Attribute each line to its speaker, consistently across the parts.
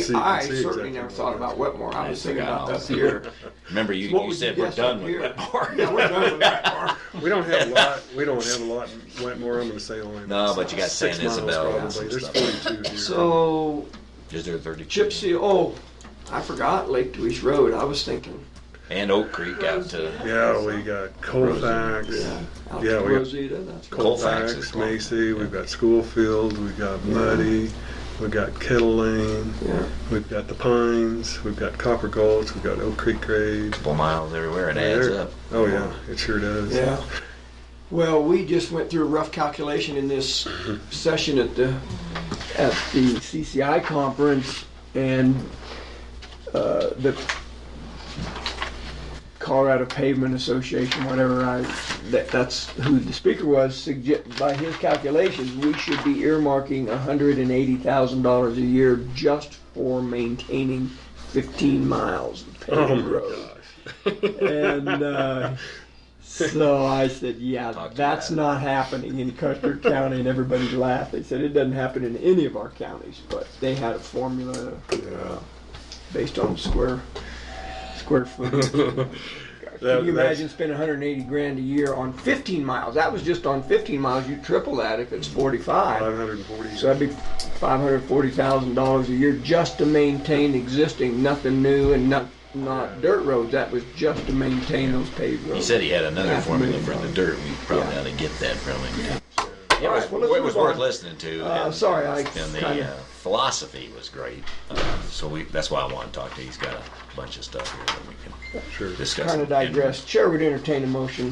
Speaker 1: See, you can
Speaker 2: I
Speaker 1: see
Speaker 2: certainly
Speaker 1: exactly
Speaker 2: never
Speaker 1: what
Speaker 2: thought
Speaker 1: it
Speaker 2: about
Speaker 1: is.
Speaker 2: Wetmore. I was
Speaker 3: Nice
Speaker 2: thinking about
Speaker 3: house.
Speaker 2: up here.
Speaker 3: Remember, you,
Speaker 2: What
Speaker 3: you
Speaker 2: would
Speaker 3: said
Speaker 2: you
Speaker 3: we're
Speaker 2: guess
Speaker 3: done
Speaker 2: up
Speaker 3: with
Speaker 2: here?
Speaker 3: Wetmore.
Speaker 2: Yeah, we're done with Wetmore.
Speaker 1: We don't have a lot, we don't have a lot in Wetmore, I'm gonna say only.
Speaker 3: No, but you got
Speaker 1: six
Speaker 3: San
Speaker 1: miles
Speaker 3: Isabel and
Speaker 1: probably.
Speaker 3: some
Speaker 1: There's
Speaker 3: stuff.
Speaker 1: forty-two here.
Speaker 2: So
Speaker 3: Is there 32?
Speaker 2: Gypsy, oh, I forgot Lake Dewey's Road. I was thinking.
Speaker 3: And Oak Creek out to
Speaker 1: Yeah, we got Colfax,
Speaker 2: Yeah, out
Speaker 1: Yeah,
Speaker 2: to
Speaker 1: we got-
Speaker 2: Rosita. That's right.
Speaker 3: Colfax is
Speaker 1: Colfax,
Speaker 3: one.
Speaker 1: Macy, we've got Schoolfield, we've got Muddy, we've got Kettle Lane,
Speaker 2: Yeah.
Speaker 1: we've got the Pines, we've got Copper Gulch, we've got Oak Creek Grade.
Speaker 3: couple miles everywhere. It adds
Speaker 1: There-
Speaker 3: up.
Speaker 1: Oh, yeah, it sure does.
Speaker 2: Yeah. Well, we just went through a rough calculation in this
Speaker 1: Mm-hmm.
Speaker 2: session at the, at the CCI conference and uh, the Colorado Pavement Association, whatever I, that, that's who the speaker was, sugge- by his calculations, we should be earmarking $180,000 a year just for maintaining 15 miles of
Speaker 1: Oh,
Speaker 2: paved
Speaker 1: my
Speaker 2: road.
Speaker 1: gosh.
Speaker 2: And uh, so I said, yeah,
Speaker 3: Talk to
Speaker 2: that's
Speaker 3: that.
Speaker 2: not happening in Custer County. And everybody laughed. They said, it doesn't happen in any of our counties. But they had a formula
Speaker 1: Yeah.
Speaker 2: based on square square foot.
Speaker 1: That-
Speaker 2: Can you
Speaker 1: that's-
Speaker 2: imagine spending 180 grand a year on 15 miles? That was just on 15 miles. You triple that if it's 45.
Speaker 1: 540.
Speaker 2: So that'd be $540,000 a year just to maintain existing, nothing new and not, not dirt roads. That was just to maintain those paved roads.
Speaker 3: He said he had another
Speaker 2: Yeah,
Speaker 3: formula
Speaker 2: maybe.
Speaker 3: for the dirt. We probably
Speaker 2: Yeah.
Speaker 3: ought to get that from him. It
Speaker 2: All
Speaker 3: was,
Speaker 2: right, well, let's
Speaker 3: it was
Speaker 2: move
Speaker 3: worth
Speaker 2: on.
Speaker 3: listening to.
Speaker 2: Uh,
Speaker 3: and-
Speaker 2: sorry, I
Speaker 3: and the
Speaker 2: kinda-
Speaker 3: uh, philosophy was great. Uh, so we that's why I want to talk to. you. He's got a bunch of stuff here that we
Speaker 1: Sure.
Speaker 3: can discuss.
Speaker 2: Kind of digress. Chair would entertain a motion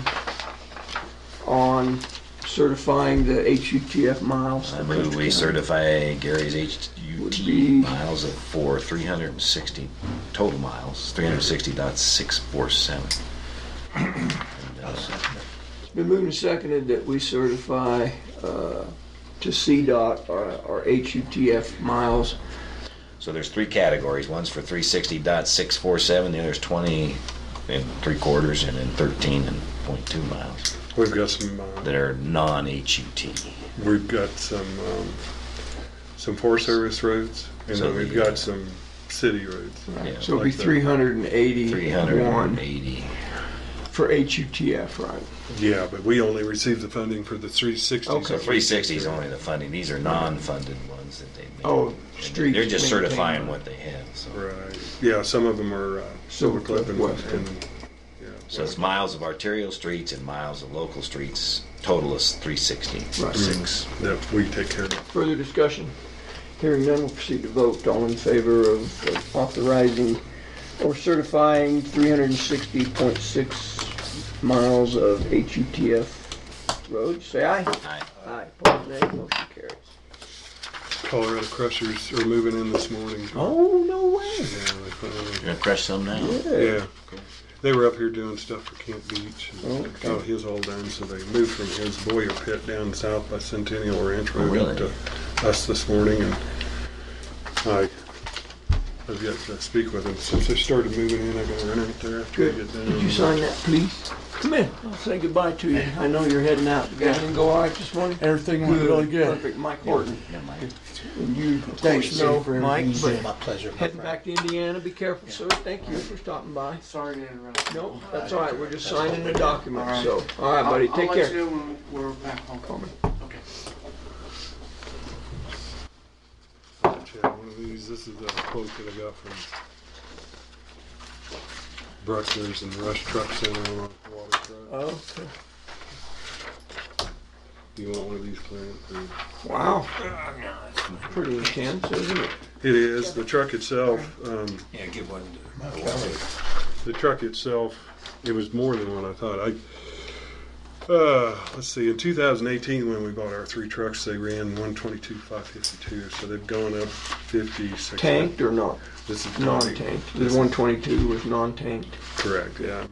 Speaker 2: on certifying the HUTF miles.
Speaker 3: I
Speaker 2: for
Speaker 3: move
Speaker 2: Custer
Speaker 3: we
Speaker 2: County.
Speaker 3: certify Gary's
Speaker 2: Would
Speaker 3: HUT
Speaker 2: be-
Speaker 3: miles of for 360 total miles, 360.647. And, uh,
Speaker 2: It's been moved and seconded that we certify uh, to CDOT our our HUTF miles.
Speaker 3: So there's three categories. One's for 360.647, the other's 20 and three quarters, and then 13 and 0.2 miles
Speaker 1: We've got some, uh,
Speaker 3: that are non-HUT.
Speaker 1: We've got some, um, some Forest Service roads, and
Speaker 3: So
Speaker 1: then we've
Speaker 3: the-
Speaker 1: got some city roads.
Speaker 3: Yeah,
Speaker 2: So it'll be
Speaker 1: like that.
Speaker 2: 381
Speaker 3: 380.
Speaker 2: for HUTF, right?
Speaker 1: Yeah, but we only receive the funding for the three sixty.
Speaker 3: So 360 is only the funding. These are non-funded ones that they make.
Speaker 2: Oh,
Speaker 3: And
Speaker 2: streets
Speaker 3: They're just
Speaker 2: maintained.
Speaker 3: certifying what they have. So.
Speaker 1: Right, yeah, some of them are, uh, Silver Cliff and,
Speaker 2: West.
Speaker 1: and, yeah.
Speaker 3: So it's miles of arterial streets and miles of local streets. Total is 360.
Speaker 2: Right.
Speaker 3: Six.
Speaker 1: Mm, That we take care of.
Speaker 2: Further discussion? Hearing none, we'll proceed to vote. All in favor of of authorizing or certifying 360.6 miles of HUTF roads, say aye.
Speaker 3: Aye.
Speaker 2: Aye, opposed nay, motion carries.
Speaker 1: Colorado Crushers are moving in this morning.
Speaker 2: Oh, no way.
Speaker 1: Yeah, they finally-
Speaker 3: You're gonna crush some now.
Speaker 1: Yeah, they were up here doing stuff for Camp Beach. and
Speaker 2: Oh, Okay.
Speaker 1: Got his all done, so they moved from his Boyer pit down south by Centennial
Speaker 2: Oh,
Speaker 1: Ranch Road
Speaker 3: really?
Speaker 1: up to us this morning and I, I've yet to speak with him. Since they started moving in, I gotta run out there after I
Speaker 2: Good.
Speaker 1: get down.
Speaker 2: Did you sign that, please? Come in, I'll say goodbye to you. I know you're heading out. Everything go all right this morning?
Speaker 4: Everything went really good.
Speaker 2: Perfect, Mike Horton.
Speaker 3: Yeah, Mike.
Speaker 2: And you,
Speaker 4: Thanks,
Speaker 2: no,
Speaker 4: Sue, for
Speaker 2: Mike,
Speaker 4: everything you
Speaker 2: but
Speaker 4: did. My pleasure. my
Speaker 2: Heading
Speaker 4: friend.
Speaker 2: back to Indiana, be careful, sir. Thank you for stopping by.
Speaker 5: Sorry to interrupt.
Speaker 2: Nope, that's all right, we're just signing the document, so, all right, buddy,
Speaker 5: I'll-
Speaker 2: take
Speaker 5: I'll let
Speaker 2: care.
Speaker 5: you know when we're back home.
Speaker 2: Coming.
Speaker 5: Okay.
Speaker 1: Chad, one of these, this is a quote that I got from Bruckner's and Rush Truck Center on Waterfront.
Speaker 2: Oh,
Speaker 1: Do you want one of these, Clarence? or-
Speaker 2: wow. Pretty intense, isn't it?
Speaker 1: It is, the truck itself, um,
Speaker 3: Yeah, give one. to-
Speaker 1: the truck itself, it was more than what I thought. I, uh, let's see, in 2018 when we bought our three trucks, they ran 122, 552, so they've gone up 50, 60.
Speaker 2: Tanked or not?
Speaker 1: This is
Speaker 2: Non-tanked. The one twenty-two was non-tanked,
Speaker 1: Correct, yeah.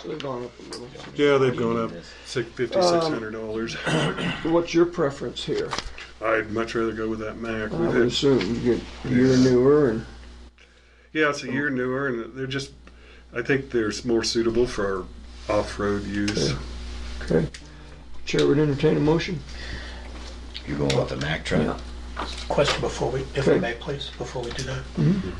Speaker 2: so they've gone up a little.
Speaker 1: Yeah, they've gone up six- $5,600. dollars.
Speaker 2: What's your preference here?
Speaker 1: I'd much rather go with that Mac.
Speaker 2: I
Speaker 1: We've
Speaker 2: would
Speaker 1: had-
Speaker 2: assume you get, you're newer and,
Speaker 1: yeah, it's a year newer, and they're just, I think they're more suitable for our off-road use.
Speaker 2: okay. Chair would entertain a motion?
Speaker 3: You're going with the Mack truck?
Speaker 6: Question before we, if I may, please, before we do that.